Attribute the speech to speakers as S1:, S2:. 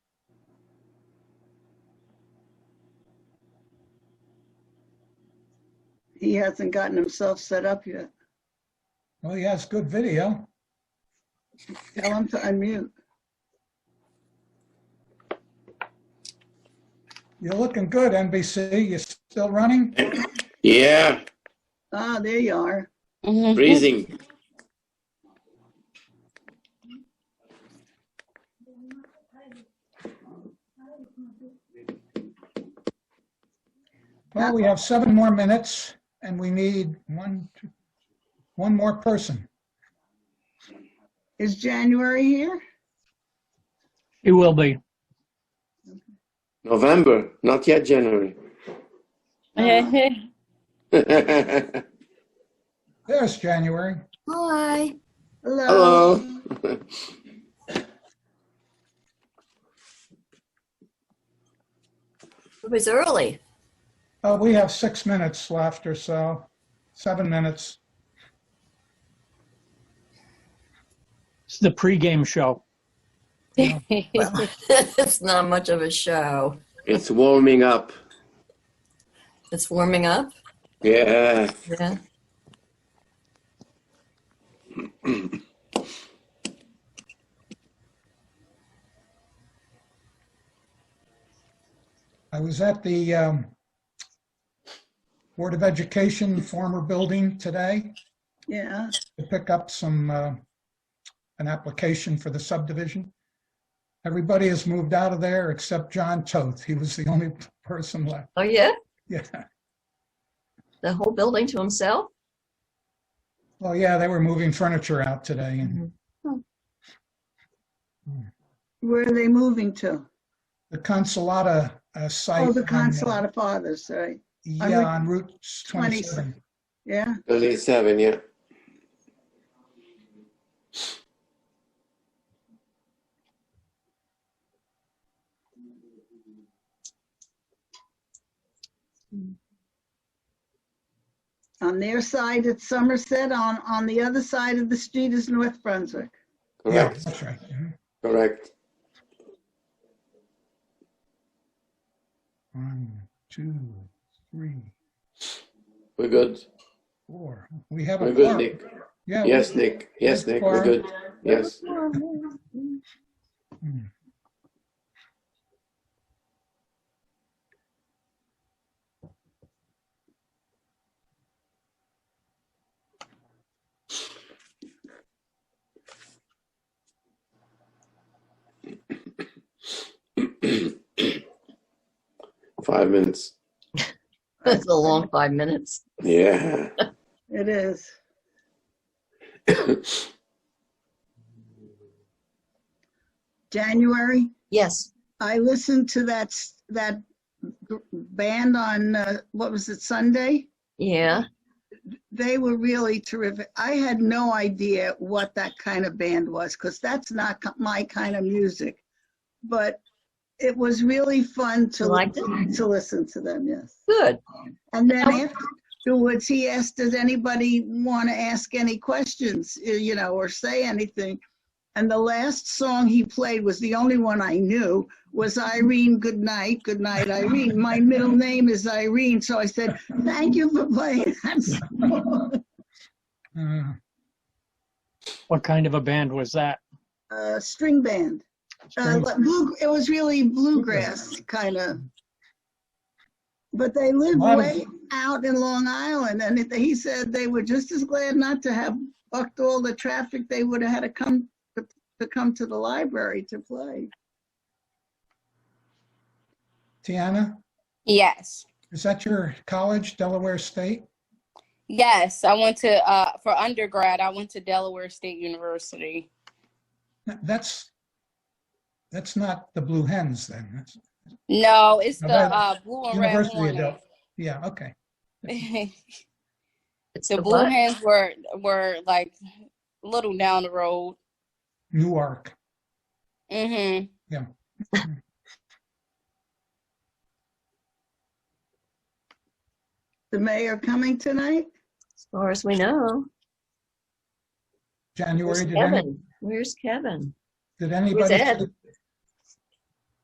S1: he hasn't gotten himself set up yet.
S2: Well, he has good video.
S1: Tell him to unmute.
S2: You're looking good, NBC. You're still running?
S3: Yeah,
S1: Ah, there you are.
S4: Mm-hmm.
S5: Mm-hmm.
S3: freezing.
S2: Well, we have seven more minutes and we need one, two, one more person.
S1: Is January here?
S6: It will be.
S3: November, not yet January. Hello.
S2: There's January.
S4: Hi.
S1: Hello.
S4: It was early.
S2: Uh, we have six minutes left or so, seven minutes.
S6: It's the pregame show.
S4: it's not much of a show.
S3: It's warming up.
S4: It's warming up.
S3: Yeah.
S4: Yeah.
S2: I was at the um, Board of Education former building today
S1: Yeah.
S2: to pick up some, uh, an application for the subdivision. Everybody has moved out of there except John Toth. He was the only person left.
S4: Oh yeah.
S2: Yeah.
S4: The whole building to himself.
S2: Well, yeah, they were moving furniture out today
S1: Mm-hmm.
S2: and
S1: Where are they moving to?
S2: the Consolata uh, site.
S1: Oh, the
S2: on, uh,
S1: Consulate of Fathers, right?
S2: Yeah, on Route 27.
S1: Yeah.
S3: 37, yeah.
S1: On their side, it's Somerset. On, on the other side of the street is North Brunswick.
S2: Yeah,
S3: Correct,
S2: that's right. Mhm.
S3: correct.
S2: One, two, three,
S3: We're good.
S2: four. We have
S3: We're
S2: a
S3: good,
S2: quorum.
S3: Nick.
S2: Yeah. we-
S3: Yes, Nick. Yes, Nick. We're good. Yes.
S2: Hmm.
S3: Five minutes.
S4: That's a long five minutes.
S3: Yeah.
S1: It is. January.
S4: Yes.
S1: I listened to that, s- that g- band on, uh, what was it, Sunday?
S4: Yeah.
S1: They were really terrific. I had no idea what that kind of band was because that's not ki- my kind of music. But it was really fun to
S4: You liked
S1: listen- to listen to them. Yes.
S4: Good.
S1: And then
S4: How-
S1: afterwards, he asked, "Does anybody want to ask any questions? eh, You know, or say anything?" And the last song he played was the only one I knew was Irene. Good night, good night, Irene. My middle name is Irene, so I said, "Thank you for playing that song."
S2: Uh,
S6: What kind of a band was that?
S1: uh, string band. Uh,
S2: String-
S1: but blue, it was really bluegrass kind of. But they lived
S2: Lot of-
S1: way out in Long Island, and it, he said they were just as glad not to have bucked all the traffic they would have had to come to, to come to the library to play.
S2: Tiana,
S5: Yes.
S2: is that your college, Delaware State?
S5: Yes. I went to, uh, for undergrad, I went to Delaware State University.
S2: That's, that's not the Blue Hens then. That's-
S5: No, it's the
S2: Now that-
S5: uh, blue and red
S2: University of
S5: hornet.
S2: Del, yeah, okay.
S5: the
S4: It's the
S5: blue
S4: what?
S5: hens were were like a little down the road.
S2: Newark.
S5: Mm-hmm.
S1: The mayor coming tonight?
S4: As far as we know.
S2: January,
S4: Where's
S2: did any,
S4: Kevin? Where's Kevin?
S2: did anybody,
S4: Ed?